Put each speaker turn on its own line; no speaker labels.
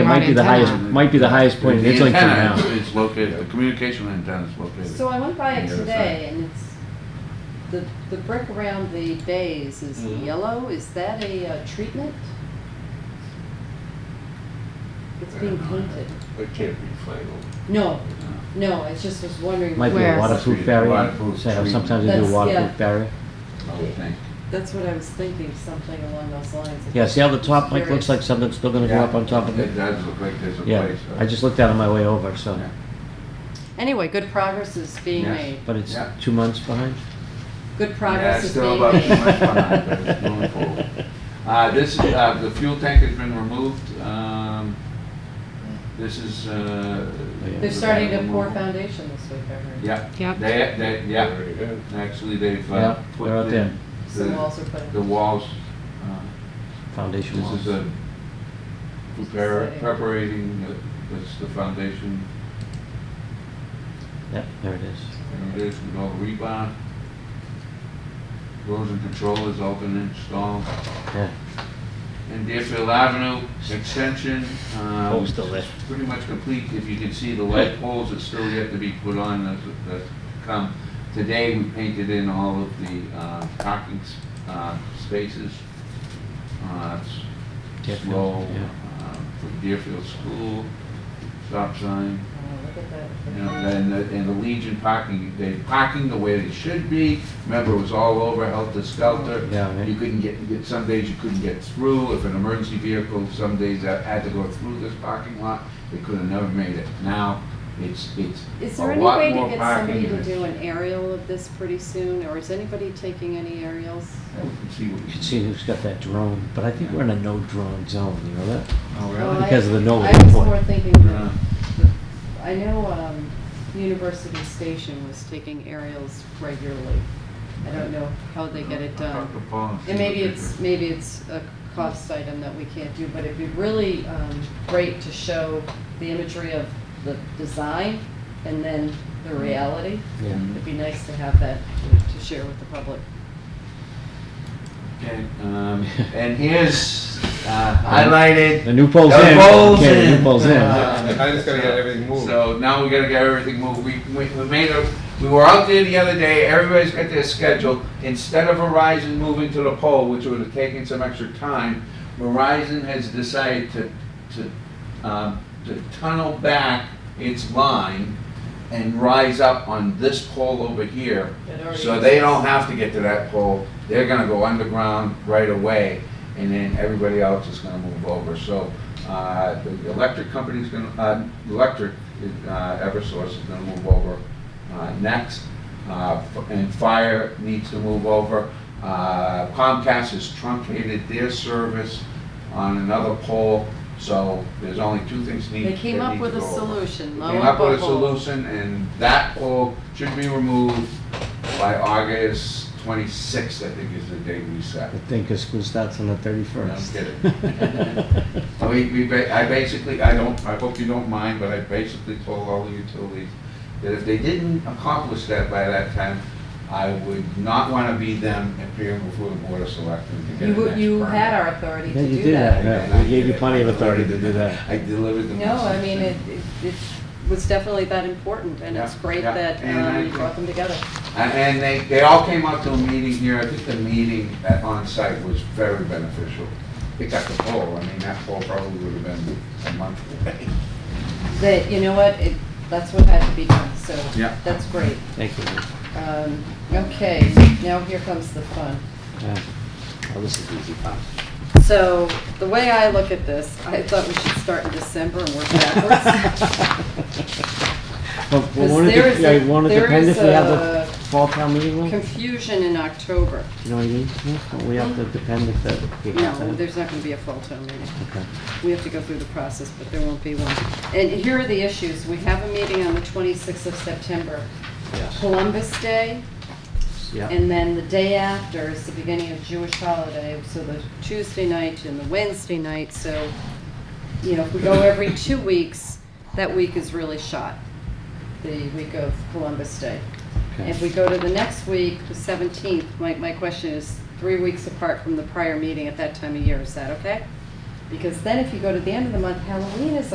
might be the
antenna.
highest, might be the highest point in
The
Islington
antenna
now.
is- is located, the communication antenna is located. uh,
So I went by
on
it
the other
today and it's, the, the brick around the bays is
Mm-hmm.
Mhm.
yellow, is that a uh, treatment? It's being painted.
It can't be final.
No, no, I just was wondering.
Might be
Where?
a waterproof barrier,
Waterproof
Say how sometimes they do
treatment.
a
That's- yeah.
waterproof barrier.
I would think.
That's what I was thinking, something along those lines.
Yeah, see how the top, Mike, looks
Curious.
like something's still gonna go up on top of
It
it?
does look like there's a
Yeah,
place. uh,
I just looked out on my way over, so,
yeah.
Anyway, good progress is being
Yes.
made.
but it's
Yeah.
two months behind?
Good
Yeah,
progress
it's
is
still
being
about two months
made.
behind, but it's moving forward. Uh, this, uh, the fuel tank has been removed, um, this is, uh.
Oh,
They're starting to pour foundation this week, I heard.
Yeah,
Yep.
they, they, yeah,
There you go.
actually, they've, uh,
Yeah,
put
they're out there,
in
Some
the,
walls are put in.
the walls, uh,
foundation
This
walls.
is a prepare, preparating, uh, this the foundation,
Yep, there it is.
foundation, with all the rebar. Erosion control has all been installed.
Yeah,
And Deerfield Avenue extension, um,
pole's still there.
pretty much complete, if you can see the light poles that still yet to be put on, that's, that's come. Today, we painted in all of the, uh, parking, s- uh, spaces. Uh, it's
Deerfield,
slow,
yeah.
uh, from Deerfield School, stop sign.
Oh, look at that.
You know, and the, and the Legion parking, they parking the way they should be. Remember, it was all over, helter skelter.
Yeah, right.
You couldn't get, get, some days you couldn't get through. If an emergency vehicle, some days that had to go through this parking lot, they could have never made it. Now, it's, it's
Is
a
there any
lot
way
more
to get somebody
parking
to
is-
do an aerial of this pretty soon, or is anybody taking any aerials?
Yeah, we can see what
You
we
can see who's got that drone, but I think we're in a no drone zone, you know that?
Oh,
Well,
really?
I-
Because of the Nolan
I was
report.
more thinking,
Uh,
that- I know um, University Station was taking aerials regularly. I don't know how they get it
I'll talk to
done.
Paul see
And maybe
what they
it's,
do.
maybe it's a cost item that we can't do, but it'd be really um, great to show the imagery of the design and then the reality.
Yeah.
It'd be nice to have that to- to share with the public.
Okay, um, and here's, uh, highlighted.
The new pole's in.
The pole's
Okay, the
in.
new pole's in.
Uh,
I just gotta get everything moved.
So now we gotta get everything moved. We, we we made a, we were out there the other day, everybody's got their schedule. Instead of Verizon moving to the pole, which would have taken some extra time, Verizon has decided to, to, um, to tunnel back its line and rise up on this pole over here.
It already
So they
exists.
don't have to get to that pole, they're gonna go underground right away, and then everybody else is gonna move over. So, uh, the electric company's gonna, uh, electric, uh, Eversource is gonna move over, uh, next. Uh, f- and fire needs to move over. Uh, Comcast has truncated their service on another pole, so there's only two things need.
They came
that
up
need
with
to
a
go over.
solution, lo
Came
and
up with a
behold.
solution, and that pole should be removed by August twenty-sixth, I think is the date we set.
I think 'cause school starts on the
No, I'm
thirty-first.
kidding. So We, we, ba- I basically, I don't, I hope you don't mind, but I basically told all the utilities that if they didn't accomplish that by that time, I would not want to be them appearing before the board of selectmen to get
You,
an
w-
next
you
permit.
had our authority
Yeah,
to
you
do
did
that.
that. Yeah, we gave you plenty of authority to do that.
I delivered the
No, I
message
mean,
and-
it, it it was definitely that important, and it's
Yeah,
great
yeah,
that
and I
um, you
think-
brought them together.
And- And they, they all came out to a meeting here, I think the meeting at on-site was very beneficial. Except the poll, I mean, that poll probably would have been a month away.
That, you know what, it, that's what had to be done, so
Yeah.
that's great.
Thank you.
Um, okay, now here comes the fun.
Yeah. Well, this is easy, Pop.
So, the way I look at this, I thought we should start in December and work backwards.
Well,
Because
won't
there
it,
is a-
dep- yeah, won't it
there
depend
is
if we have
a
the fall town meeting though? Do
Confusion in October.
you know what I mean? Yeah, Don't we have to depend if that, if we have
No,
that?
there's not gonna be a fall town meeting.
Okay.
We have to go through the process, but there won't be one. And here are the issues. We have a meeting on the twenty-sixth of September.
Yes.
Columbus Day,
Yeah,
and then the day after is the beginning of Jewish holiday, so the Tuesday night and the Wednesday night, so, you know, if we go every two weeks, that week is really shot, the week of Columbus Day.
okay.
If we go to the next week, the seventeenth, my, my question is, three weeks apart from the prior meeting at that time of year, is that okay? Because then if you go to the end of the month, Halloween is